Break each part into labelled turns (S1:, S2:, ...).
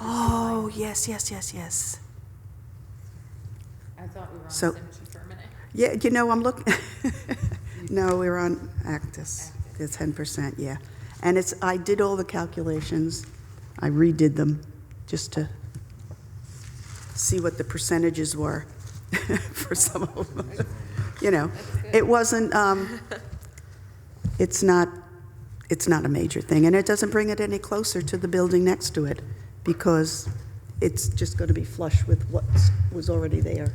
S1: Oh, yes, yes, yes, yes.
S2: I thought we were on
S1: So-
S2: cemetery for a minute.
S1: Yeah, you know, I'm looking, no, we're on Actus, the 10%, yeah. And it's, I did all the calculations, I redid them, just to see what the percentages were for some of them. You know, it wasn't, um, it's not, it's not a major thing, and it doesn't bring it any closer to the building next to it, because it's just going to be flush with what was already there.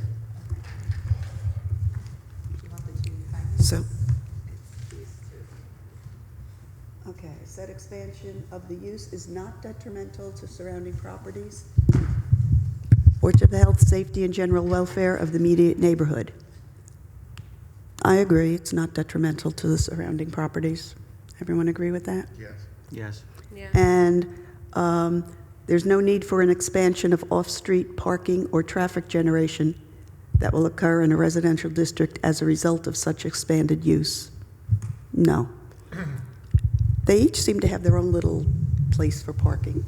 S2: You want the two five-
S1: So. Okay, said expansion of the use is not detrimental to surrounding properties or to the health, safety, and general welfare of the immediate neighborhood. I agree, it's not detrimental to the surrounding properties. Everyone agree with that?
S3: Yes.
S4: Yes.
S1: And um, there's no need for an expansion of off-street parking or traffic generation that will occur in a residential district as a result of such expanded use. No. They each seem to have their own little place for parking.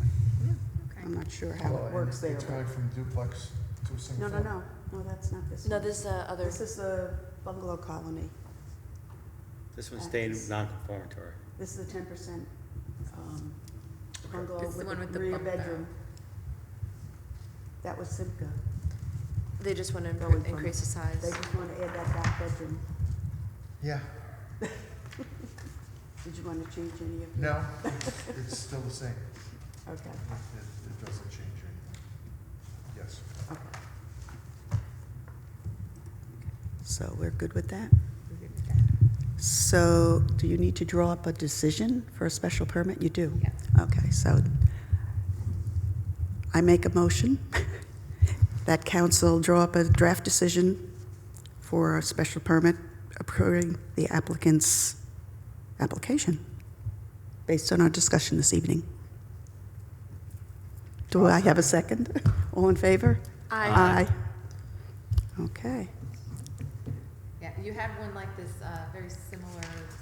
S1: I'm not sure how it works there.
S3: It's
S1: but-
S3: going from duplex to a
S1: No,
S3: single.
S1: no, no, no, that's not this
S5: No,
S1: one.
S5: this is uh, other,
S1: This is the bungalow colony.
S4: This one stayed non-conformatory.
S1: This is the 10% um, bungalow
S2: It's the one
S1: with
S2: with
S1: the
S2: the
S1: rear
S2: bunk bed.
S1: bedroom. That was Simca.
S5: they just want to
S1: Going from-
S5: increase the
S1: They
S5: size.
S1: just want to add that back bedroom.
S3: Yeah,
S1: Did you want to change any of
S3: no, it's- it's still the same.
S1: Okay,
S3: It, it- it doesn't change anything. Yes.
S1: okay. So we're good with that? So do you need to draw up a decision for a special permit? You do?
S2: Yes.
S1: Okay, so I make a motion that council draw up a draft decision for a special permit approving the applicant's application based on our discussion this evening. Do I have a second? All in favor?
S5: Aye.
S1: Aye. Okay.
S2: Yeah, you had one like this, uh, very similar,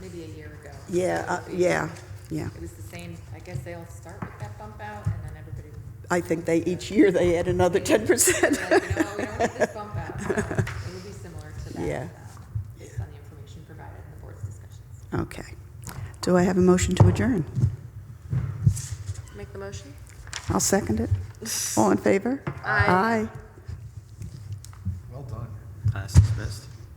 S2: maybe a year ago.
S1: Yeah, uh, yeah, yeah.
S2: It was the same, I guess they all start with that bump out and then everybody.
S1: I think they, each year they add another
S2: Like,
S1: 10%.
S2: you know what, we don't want this bump out, so it would be similar to that.
S1: Yeah.
S2: um, Based on the information provided in the board's discussions.
S1: Okay. Do I have a motion to adjourn?
S5: Make the motion?
S1: I'll second it. All in favor? Aye. Aye.